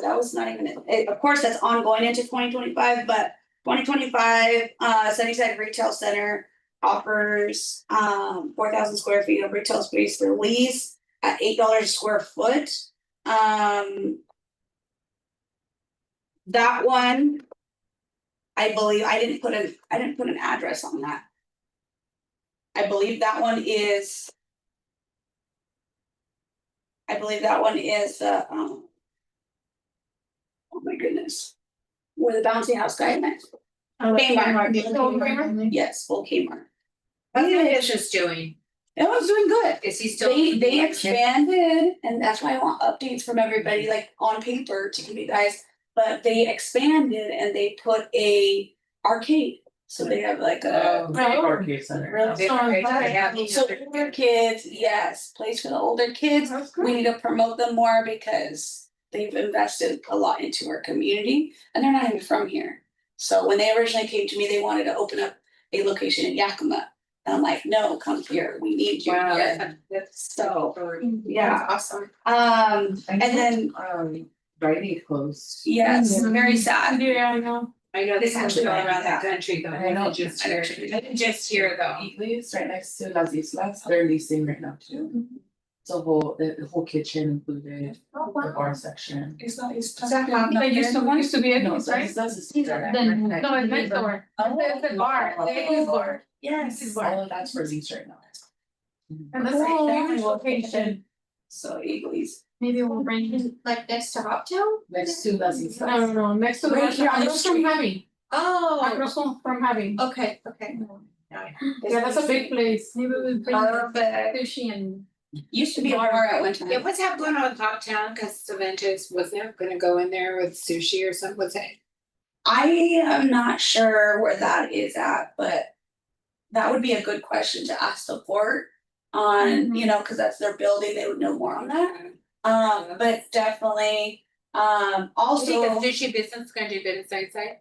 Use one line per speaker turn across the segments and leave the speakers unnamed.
that was not even, it- of course, that's ongoing into twenty twenty-five, but twenty twenty-five, uh, Sunnyside Retail Center offers, um, four thousand square feet of retail space for lease at eight dollars a square foot. Um, that one, I believe, I didn't put an, I didn't put an address on that. I believe that one is I believe that one is, uh, um. Oh my goodness. Where the bouncy house guy met,
Oh, that's
Kmart.
Kmart.
Yeah.
Kmart.
yes, full Kmart.
How the is doing?
It was doing good.
Is he still?
They, they expanded, and that's why I want updates from everybody, like on paper to give you guys. But they expanded and they put a arcade, so they have like a.
Really?
They- they- they have-
So older kids, yes, place for the older kids.
That's
we
great.
need to promote them more because they've invested a lot into our community and they're not even from here. So when they originally came to me, they wanted to open up a location in Yakima. And I'm like, no, come here, we need you
Wow,
here.
that's- that's
So, yeah,
Yeah, awesome.
um, and then,
um, writing close.
yes,
Mhm.
very sad.
Yeah, I know.
I know
This
this actually
is
going around
that.
the country, but I don't just here, I didn't just here though.
Eatly's right next to Las Islas, they're leasing right now too. It's a whole, the the whole kitchen included, the bar section.
It's not, it's.
They used to, used to be a
No,
house,
Las
right?
Islas is.
Then, no, it's next door.
oh,
It's the bar, they use bar.
Yes.
All of oh, that's for lease right now.
Mm-hmm.
And that's
Cool.
a favorite location.
So Eagles.
Maybe we'll bring it.
Like next to Hoptown?
Next to Las
Um,
No,
Islas.
no, no, next to the.
Right here on the
Across from
street.
Javi.
Oh,
Across from from Javi.
okay, okay.
Yeah, that's a big place. Maybe we'll bring
Uh,
Perfect.
sushi and.
Used to be a bar at one
Yeah,
time.
what's happening going on in Hoptown? Cause Savantis wasn't gonna go in there with sushi or something, was it?
I am not sure where that is at, but that would be a good question to ask the port on, you know, cause that's their building, they would know more on that. Um, but definitely, um,
Do you think
also,
Oh, the sushi business is gonna do good in Sunnyside?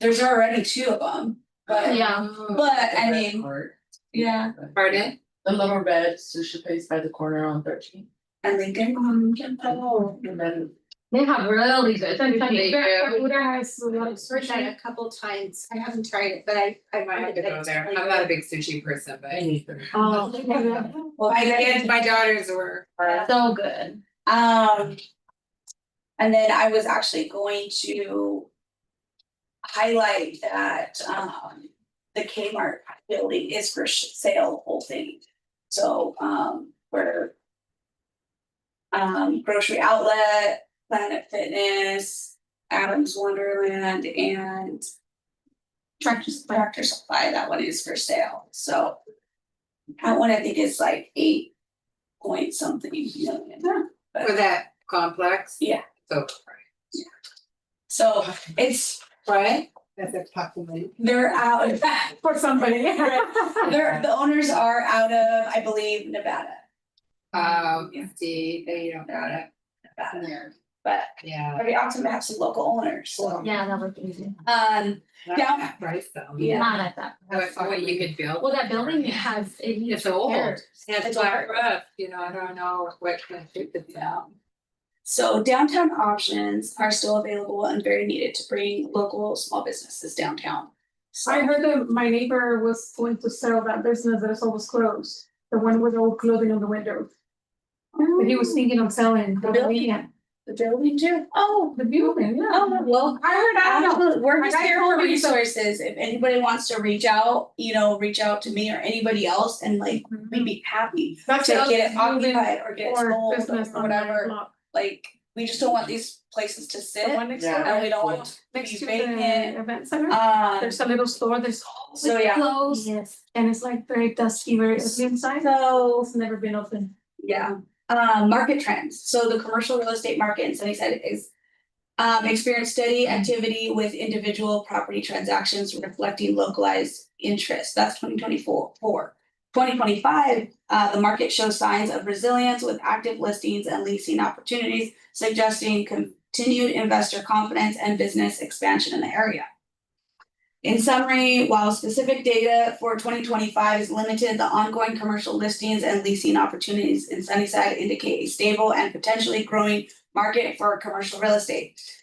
there's already two of them, but,
Yeah.
Oh.
but I
The red
mean,
cart.
yeah,
Pardon?
The little red sushi place by the corner on thirteen.
and Lincoln.
Um,
Oh. And then
they have really good.
They do.
has a lot of
I've tried
sushi.
a couple times. I haven't tried it, but I I might have to go there. I'm not a big sushi person, but.
anything.
Oh,
Well,
My kids, my daughters were.
so good.
Um. And then I was actually going to. Highlight that um the Kmart building is for sh- sale, the whole thing. So um we're. Um grocery outlet, Planet Fitness, Adams Wonderland and. Tractor Tractor Supply, that one is for sale, so. That one I think is like eight point something million.
For that complex.
Yeah.
So.
So it's,
Right? That's a compliment.
they're out,
For somebody.
they're, the owners are out of, I believe, Nevada.
Um,
Yeah.
see, they don't got it.
Nevada, but
Yeah.
it'd be awesome to have some local owners, so.
Yeah, that would be easy.
Um, Yeah.
Right, so.
Yeah.
Not at that.
What what you could build.
Well, that building has, it needs
It's old.
repairs.
And it's
It's
flat
over.
roof, you know, I don't know what kind of shape it's out.
so downtown options are still available and very needed to bring local small businesses downtown.
I
So,
heard that my neighbor was going to sell that business that is always closed, the one with all clothing on the window. But he was thinking of selling.
The building? the building too.
Oh, the building, yeah.
Oh, well,
I heard, I don't know.
Absolutely. We're just
I got
here for
told me so.
resources. If anybody wants to reach out, you know, reach out to me or anybody else and like,
Mm-hmm.
we'd be happy
That's
to
the
get it
other building
occupied or get it
Or
sold
business
or
on that
whatever.
block.
Like, we just don't want these places to sit
The one next
Yeah.
door,
and we don't want to
next
be
to the
vacant.
event center.
Um,
There's a little store, there's always
So, yeah.
closed. Yes. And it's like very dusty, very ugly inside, so it's never been open.
yeah, um, market trends. So the commercial real estate market in Sunnyside is um, experienced steady activity with individual property transactions reflecting localized interest. That's twenty twenty-four, four. Twenty twenty-five, uh, the market shows signs of resilience with active listings and leasing opportunities, suggesting continued investor confidence and business expansion in the area. In summary, while specific data for twenty twenty-five is limited, the ongoing commercial listings and leasing opportunities in Sunnyside indicate a stable and potentially growing market for commercial real estate.